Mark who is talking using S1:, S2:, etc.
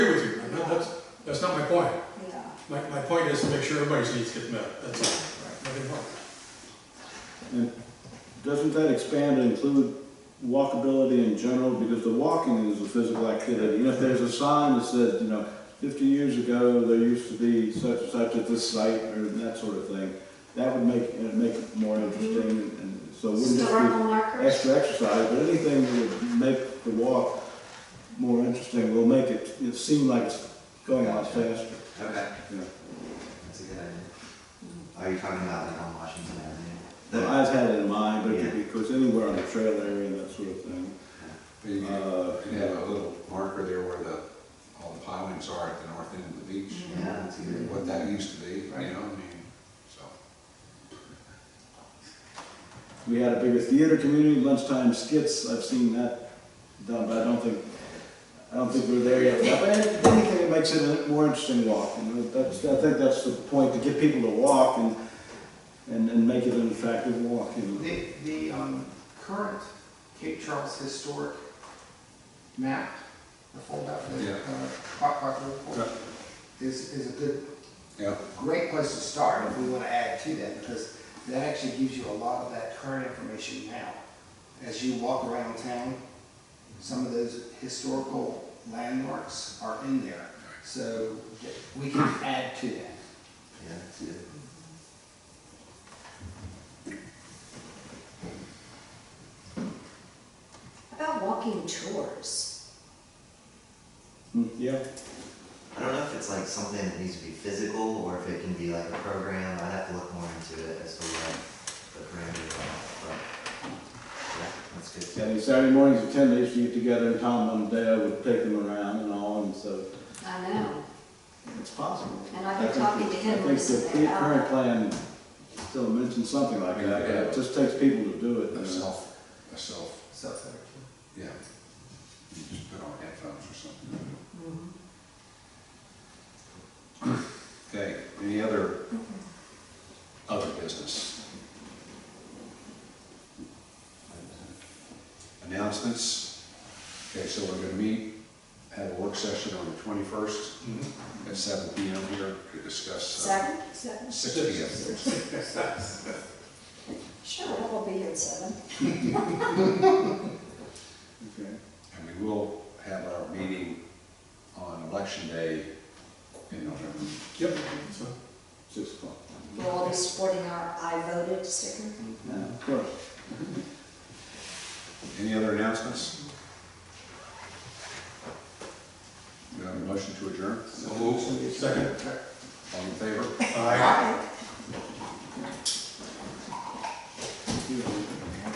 S1: is to make sure everybody's needs get met, that's all, nothing more.
S2: And doesn't that expand and include walkability in general, because the walking is a physical activity, you know, if there's a sign that says, you know, fifty years ago, there used to be such and such at this site, or that sort of thing, that would make, it'd make it more interesting, and and so it wouldn't just
S3: Historical
S2: be
S3: markers,
S2: extra exercise, but anything that would make the walk more interesting will make it, it seem like it's going a lot faster,
S4: Okay,
S2: you know.
S4: that's a good idea. Are you talking about like on Washington Avenue?
S2: Well,
S4: The-
S2: I've had it in mind, but it could be, of course, anywhere on the trail area and that sort of thing.
S5: But you could
S2: Uh,
S5: you could have a little marker there where the, all the pilings are at the north end of the beach. you know,
S4: Yeah, that's a good
S5: What
S4: one.
S5: that used to be, you know, I
S4: Mm-hmm. Right.
S5: mean, so.
S2: We had a bigger theater community, lunchtime skits, I've seen that done, but I don't think, I don't think we're there yet. But if anything, it makes it a more interesting walk, and that's, I think that's the point, to get people to walk and, and, and make it an attractive walk, you know.
S6: The, the um, current Cape Charles historic map, the foldout, the
S5: Yeah.
S6: uh, hot copy report, is, is a good,
S5: Yeah,
S6: great place to start if we want to add to that, because that actually gives you a lot of that current information now. As you walk around town, some of those historical landmarks are in there, so that we can add to that.
S4: Yeah, that's good.
S3: about walking tours.
S2: Mm, Yeah,
S4: I don't know if it's like something that needs to be physical or if it can be like a program. I'd have to look more into it as to what the parameters are, but yeah, that's good.
S2: and Saturday mornings at ten, they used to get together in town one day, I would take them around and all, and so
S3: I know,
S2: it's possible.
S3: and I've been
S2: think
S3: talking to
S2: the-
S3: him uh,
S2: I think
S3: recently
S2: the current
S3: about,
S2: plan still mentions something like that, but it just takes people to do it.
S5: a
S2: you know.
S5: self, a self,
S6: So, thank you.
S5: yeah. You just put on headphones or something. Okay, any other, other business? Announcements? Okay, so we're gonna meet, have a work session on the twenty-first at seven P M here to discuss, uh,
S3: seven, seven,
S5: six P M.
S3: sure, we'll be at seven.
S2: Okay.
S5: And we will have our meeting on election day in November.
S1: Yep, so,
S2: Six o'clock.
S3: We'll all be sporting our I voted sticker.
S2: Yeah, of course.
S5: Any other announcements? Do you have a motion to adjourn?
S1: second,
S5: All in favor?
S1: aye.
S2: Mm-hmm.
S3: Aye.